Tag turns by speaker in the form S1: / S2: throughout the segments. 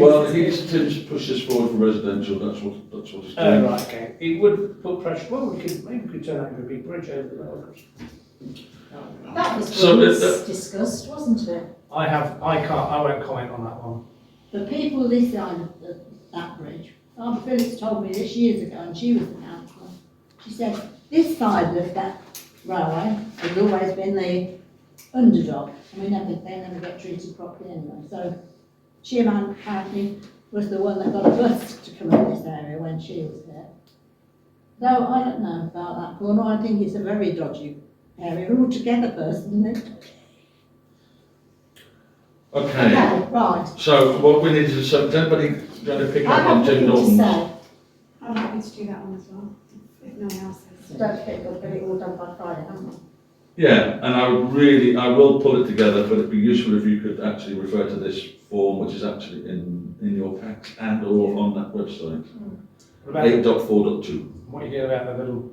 S1: Well, he's to push this forward from residential, that's what, that's what he's
S2: Oh,
S1: doing.
S2: right, okay. It would put pressure, well, we could, maybe we could turn that into a big bridge over the Lorcas.
S3: That was
S1: So, uh,
S3: once discussed, wasn't it?
S2: I have, I can't, I won't comment on that one.
S4: The people this side of the, that bridge, Barbara Phillips told me this years ago, and she was the councillor. She said, this side of that railway has always been the underdog, and we never, they never get treated properly anyway. So Shearman apparently was the one that got a bus to come up this area when she was there. Though I don't know about that corner, I think it's a very dodgy area altogether personally.
S2: Oh.
S1: Okay,
S4: Okay, right.
S1: so what we need is, so is anybody going to pick up
S4: I
S1: on
S4: have
S1: Tim
S4: nothing to
S1: Norton's?
S4: say.
S5: I'm happy to do that one as well, if no one else is.
S4: Don't think we'll get it all done by Friday, haven't we?
S1: Yeah, and I would really, I will pull it together, but it'd be useful if you could actually refer to this form, which is actually in, in your packs and or on that website.
S2: What about,
S1: Eight dot four dot two,
S2: what you hear about the little,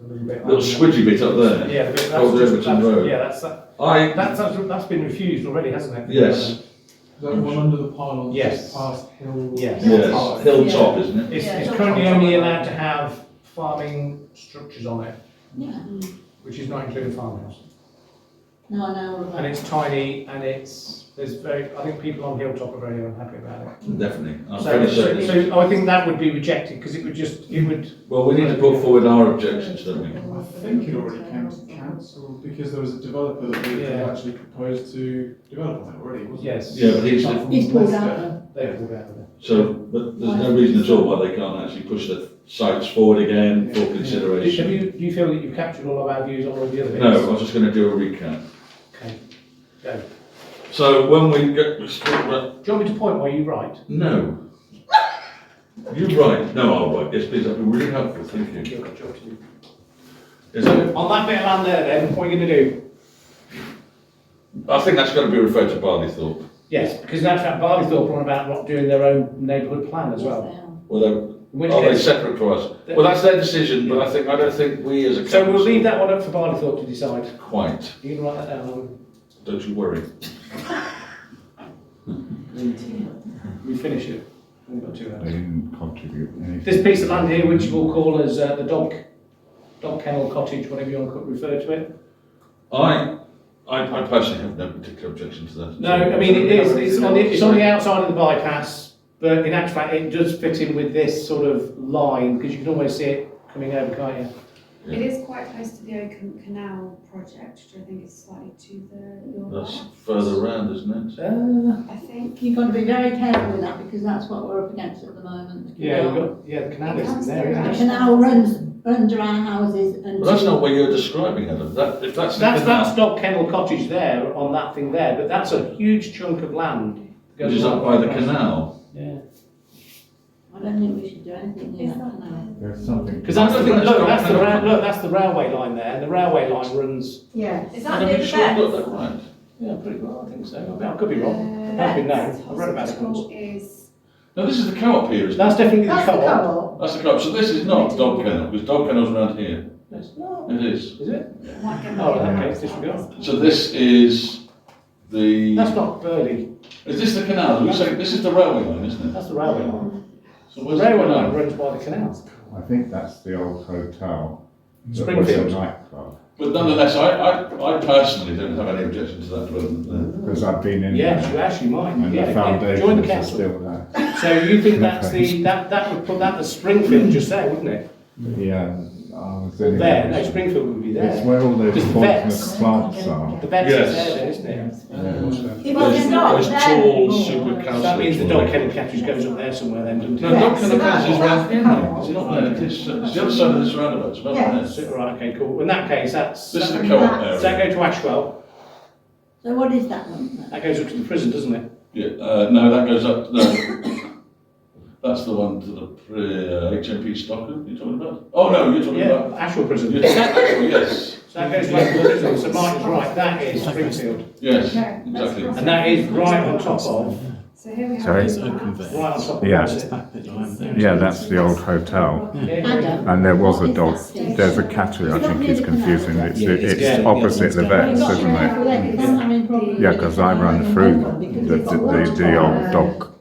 S2: the little bit?
S1: little squidgy bit up there.
S2: Yeah, the bit, that's
S1: Old
S2: just-
S1: Overton
S2: that's-
S1: Road.
S2: Yeah, that's, that,
S1: I,
S2: that's, that's been refused already, hasn't it?
S1: Yes.
S6: That one under the pylon,
S2: Yes.
S6: just past Hill.
S2: Yes.
S1: yes, hilltop, isn't it?
S2: It's,
S3: Yeah,
S2: it's
S3: it's
S2: currently
S3: all-
S2: only allowed to have farming structures on it,
S4: Yeah,
S2: which is not including farmhouse.
S4: no, I know all
S2: And
S4: about it.
S2: it's tiny and it's, there's very, I think people on Hilltop are very unhappy about it.
S1: Definitely, I'm
S2: So,
S1: pretty
S2: so,
S1: certain.
S2: so I think that would be rejected because it would just, it would,
S1: Well, we need to put forward our objections, don't we?
S6: I think it already came to council because there was a developer that we had
S2: Yeah.
S6: actually proposed to develop on it already, wasn't there?
S2: yes.
S1: Yeah, but he's,
S6: Apart from
S4: He's pulled
S6: Leicester.
S4: out then.
S2: They would have it.
S1: so, but there's no reason at all why they can't actually push the sites forward again for
S2: Do have
S1: consideration.
S2: you, do you feel that you've captured all of our views on all of the other bits?
S1: No, I was just gonna do a recap.
S2: Okay, go.
S1: So when we get, we start with-
S2: Do you want me to point where you write?
S1: No. You're right. No, I'll write. Yes, please, that'd be really helpful, thank you.
S2: You've got a job to do.
S1: Is that,
S2: On that bit of land there then, what are you gonna do?
S1: I think that's gotta be referred to Barleythorpe.
S2: Yes, because in actual fact, Barleythorpe are on about not doing their own neighbourhood plan as well.
S1: Well,
S2: In
S1: they-
S2: which
S1: are they
S2: case,
S1: separate to us? Well, that's their decision, but I think, I don't think we as a council.
S2: so we'll leave that one up for Barleythorpe to decide.
S1: Quite,
S2: You can write that down, I'll-
S1: don't you worry.
S2: we finish it. We've got two hours.
S7: They didn't contribute anything.
S2: This piece of land here, which we'll call as uh, the dog, dog kennel cottage, whatever you want to refer to it.
S1: I, I, I personally have no particular objection to that.
S2: No, I mean, it is, it's on the, it's on the outside of the bypass, but in actual fact, it does fit in with this sort of line, because you can always see it coming over, can't you?
S5: It is quite close to the Oakham Canal project, which I think is slightly to the
S1: That's
S5: north.
S1: further round, isn't it?
S2: Uh,
S5: I think.
S4: You've got to be very careful with that because that's what we're up against at the moment. the
S2: yeah, we've
S4: canal.
S2: got, yeah, the canal
S5: It comes
S2: is there,
S5: through
S2: isn't
S4: The
S2: it?
S5: actually.
S4: canal runs under our houses and.
S1: But that's not what you're describing, Adam. That, if that's. the
S2: That's,
S1: canal-
S2: that's dog kennel cottage there, on that thing there, but that's a huge chunk of land. that goes
S1: Which is up by
S2: right
S1: the
S2: across.
S1: canal.
S2: Yeah.
S4: I don't think we should do anything near
S5: Is
S4: that
S5: that
S4: canal.
S7: There's something.
S2: Because that's the,
S1: That's
S2: look,
S1: dog
S2: that's the,
S1: kennel
S2: ra-
S1: cottage.
S2: look, that's the railway line there, and the railway line runs,
S4: Yes.
S3: Is
S1: Adam,
S3: that near
S1: you
S3: the
S1: sure you got
S3: beds?
S1: that right?
S2: yeah, pretty well, I think so, I mean, I could be wrong.
S5: Uh,
S2: That's been known.
S5: that's
S2: I read about it
S5: hospital
S2: once.
S5: Is,
S1: No, this is the co-op here, isn't it?
S2: That's definitely the
S4: That's the
S2: co-op.
S4: co-op.
S1: That's the co-op. So this is not dog kennel, because dog kennel's around here.
S2: That's not-
S1: It is.
S2: Is it?
S5: might get.
S2: Oh, okay, it's disregarded.
S1: So this is the.
S2: That's not Burley,
S1: Is this the canal? You say this is the railway line, isn't it?
S2: that's the railway line.
S1: So
S2: The
S1: where's the
S2: railway line
S1: canal?
S2: runs by the canal.
S7: I think that's the old hotel. that was a
S2: Springfield.
S7: Nightclub,
S1: But nonetheless, I, I, I personally don't have any objection to that development
S7: because I've been in
S2: Yes, you
S7: there.
S2: actually might,
S7: uh, And
S2: yeah,
S7: the
S2: yeah, join the
S7: foundations are
S2: council.
S7: still there.
S2: So you think that's the, that, that would put that as Springfield just there, wouldn't it?
S7: But Yeah, I was in
S2: There, no,
S7: there.
S2: Springfield would be
S7: It's
S2: there.
S7: where all those
S2: Because the
S7: Portsmouth
S2: vets-
S7: plants are.
S2: The vets is
S1: Yes.
S2: there, then, isn't it?
S1: there.
S3: It was
S1: Those-
S3: not
S1: those
S3: there
S1: tall
S3: anymore.
S1: super
S2: So that means the
S1: councillors
S2: dog
S1: were-
S2: kennel catchers goes up there somewhere then, doesn't
S1: No,
S2: it?
S1: dog kennel
S3: Yes,
S1: council is
S3: that's
S1: round here
S3: the
S1: now.
S3: canal.
S1: It's not there. It is, uh, it's the other side of this roundabout. It's not there.
S3: Yes.
S2: Right, okay, cool. In that case, that's,
S1: This is
S2: does
S1: the co-op
S3: That's-
S1: area.
S2: that go to Ashwell?
S4: So what is that one then?
S2: That goes up to the prison, doesn't it?
S1: Yeah, uh, no, that goes up, no. That's the one to the, uh, HMP Stockton you're talking about? Oh, no, you're talking about.
S2: Yeah, Ashwell prison.
S1: you're
S2: So
S1: talking-
S2: that
S1: oh, Yes,
S2: so that goes to Ashwell prison, so Martin's right, that is Springfield.
S1: yes,
S5: Okay, that's
S1: exactly.
S5: right.
S2: And that is right on top of
S5: So here we have.
S7: Sorry?
S5: these
S8: Open
S5: maps.
S8: there.
S2: Right on top of
S7: Yeah.
S8: It's
S2: it.
S8: that bit lying there.
S7: Yeah, that's the old hotel.
S2: Yeah, yeah.
S4: Adam.
S7: And there was
S4: what
S7: a
S4: is that
S7: dog.
S4: station?
S7: There's a cattery, I think is confusing. It's,
S8: Yeah, it's
S7: it's
S8: down- yeah,
S7: opposite
S8: it's
S7: the
S8: down.
S7: vets,
S4: Well,
S7: isn't it?
S4: it's not- Yeah,
S7: Yeah, because I ran through the, the, the, the old dog